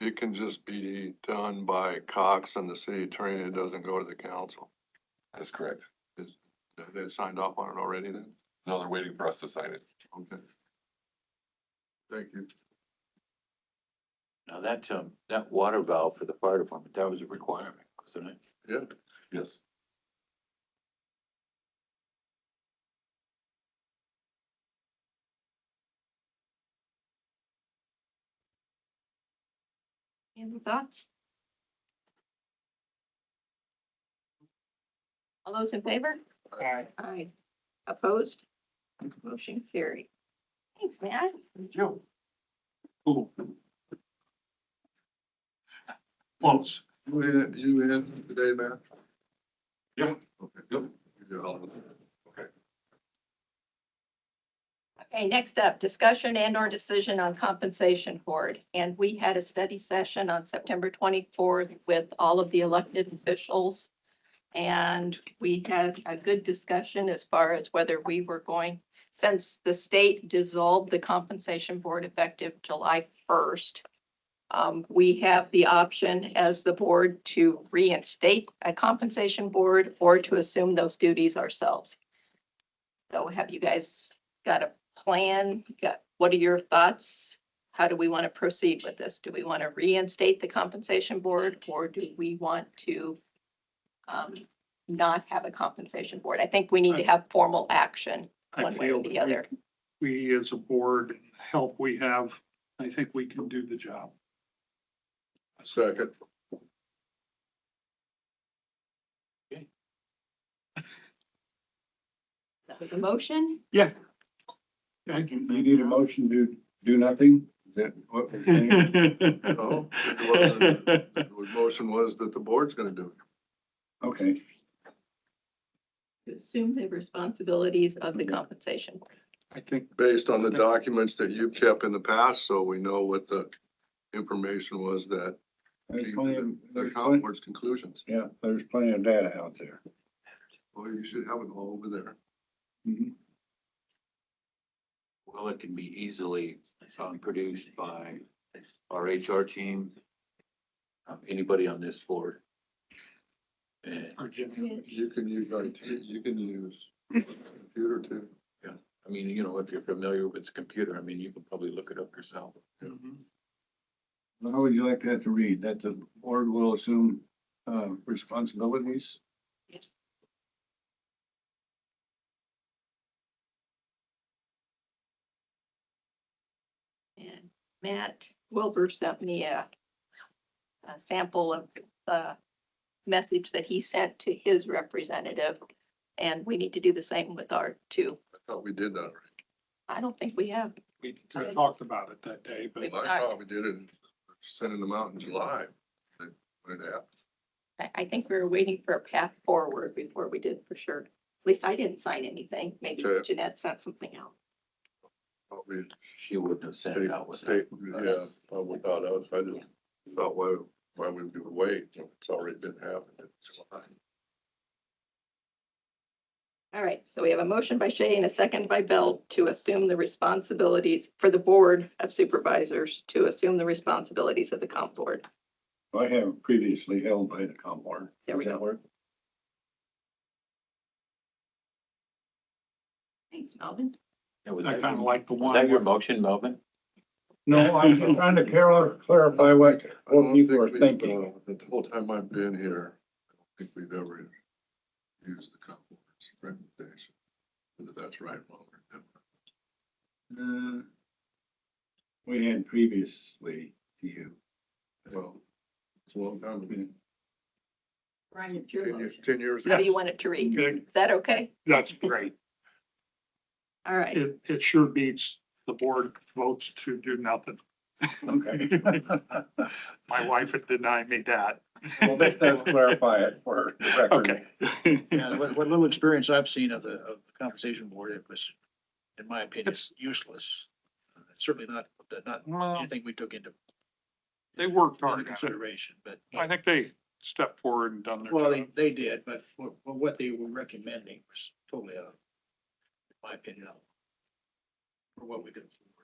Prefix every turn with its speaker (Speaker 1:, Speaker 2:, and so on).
Speaker 1: it can just be done by Cox and the city attorney, it doesn't go to the council.
Speaker 2: That's correct.
Speaker 1: They signed off on it already then?
Speaker 2: No, they're waiting for us to sign it.
Speaker 1: Okay. Thank you.
Speaker 3: Now that, um, that water valve for the fire department, that was a requirement, wasn't it?
Speaker 1: Yeah.
Speaker 2: Yes.
Speaker 4: Any other thoughts? All those in favor?
Speaker 5: Aye.
Speaker 4: Aye. Opposed? Motion carried. Thanks, man.
Speaker 3: Joe. Cool. Close.
Speaker 1: You in, you in today, Matt?
Speaker 2: Yeah.
Speaker 1: Okay.
Speaker 2: Yep.
Speaker 1: You're all-
Speaker 4: Okay, next up, discussion and or decision on compensation board. And we had a study session on September twenty-fourth with all of the elected officials. And we had a good discussion as far as whether we were going, since the state dissolved the compensation board effective July first. Um, we have the option as the board to reinstate a compensation board or to assume those duties ourselves. So have you guys got a plan? Got, what are your thoughts? How do we want to proceed with this? Do we want to reinstate the compensation board or do we want to um, not have a compensation board? I think we need to have formal action
Speaker 5: I
Speaker 4: one way or
Speaker 5: feel
Speaker 4: the
Speaker 5: that we-
Speaker 4: other.
Speaker 5: We, as a board, and the help we have, I think we can do the job.
Speaker 1: Second.
Speaker 4: That was a motion?
Speaker 5: Yeah.
Speaker 6: You need a motion to do nothing? Is that what we're saying?
Speaker 1: No, Oh, it wasn't. The motion was that the board's gonna do it.
Speaker 6: Okay,
Speaker 4: To assume the responsibilities of the compensation board.
Speaker 5: I think,
Speaker 1: Based on the documents that you kept in the past, so we know what the information was that
Speaker 6: there's
Speaker 1: came
Speaker 6: plenty, of-
Speaker 1: to the the
Speaker 6: there's
Speaker 1: county
Speaker 6: plenty,
Speaker 1: board's conclusions.
Speaker 6: yeah, there's plenty of data out there.
Speaker 1: Well, you should have it all over there.
Speaker 6: Mhm.
Speaker 3: Well, it can be easily, um, produced by our HR team, um, anybody on this board. And,
Speaker 5: or Jimmy,
Speaker 1: You can use IT, you can use computer too.
Speaker 3: I mean, you know, if you're familiar with the computer, I mean, you can probably look it up yourself.
Speaker 6: How would you like that to read? That the board will assume, uh, responsibilities?
Speaker 4: And Matt Wilbur sent me a, a sample of the message that he sent to his representative. And we need to do the same with our two.
Speaker 1: I thought we did that.
Speaker 4: I don't think we have.
Speaker 5: we kinda talked about it that day, but
Speaker 4: Wait.
Speaker 1: already. I thought we did it, sending them out in July. When it happened.
Speaker 4: I, I think we were waiting for a path forward before we did for sure. At least I didn't sign anything. Maybe
Speaker 1: Okay.
Speaker 4: Jeanette sent something out.
Speaker 1: Thought we
Speaker 3: She wouldn't have sent
Speaker 1: State,
Speaker 3: it out without.
Speaker 1: state, yeah, uh, without us, I just thought, why, why would we wait? It's already been happening.
Speaker 4: All right, so we have a motion by Shay and a second by Bell to assume the responsibilities for the Board of Supervisors to assume the responsibilities of the comp board.
Speaker 6: I have previously held by the com board.
Speaker 4: There we
Speaker 6: Does that
Speaker 4: go.
Speaker 6: work?
Speaker 4: Thanks, Melvin.
Speaker 3: Yeah, was
Speaker 5: I
Speaker 3: that your-
Speaker 5: kinda like the
Speaker 3: Was that your
Speaker 5: one,
Speaker 3: motion, Melvin?
Speaker 6: No, I'm just trying to clar- clarify what,
Speaker 1: I don't
Speaker 6: what people
Speaker 1: think
Speaker 6: are
Speaker 1: we've,
Speaker 6: thinking.
Speaker 1: uh, The whole time I've been here, I don't think we've ever used the comp board's recommendation. Whether that's right or wrong. or different.
Speaker 6: Uh, We had previously to you.
Speaker 1: Well, it's a long time. ago.
Speaker 4: Brian, it's your
Speaker 1: Ten years,
Speaker 4: motion.
Speaker 1: ten years.
Speaker 4: How
Speaker 1: ago.
Speaker 4: do you want it to read?
Speaker 5: Okay,
Speaker 4: Is that okay?
Speaker 5: that's great.
Speaker 4: All right.
Speaker 5: It, it sure beats the board votes to do nothing.
Speaker 6: Okay.
Speaker 5: My wife had denied me that.
Speaker 6: Well, this does clarify it for the record.
Speaker 5: Okay.
Speaker 7: Yeah, what, what little experience I've seen of the, of the compensation board, it was, in my opinion,
Speaker 5: It's-
Speaker 7: useless. Uh, Certainly not, not
Speaker 5: Well,
Speaker 7: anything we took into
Speaker 5: they worked
Speaker 7: into
Speaker 5: hard on it.
Speaker 7: consideration, but,
Speaker 5: I think they stepped forward and done their
Speaker 7: well,
Speaker 5: job.
Speaker 7: they, they did, but what, what they were recommending was totally out. of- In my opinion, out. For what we could. afford.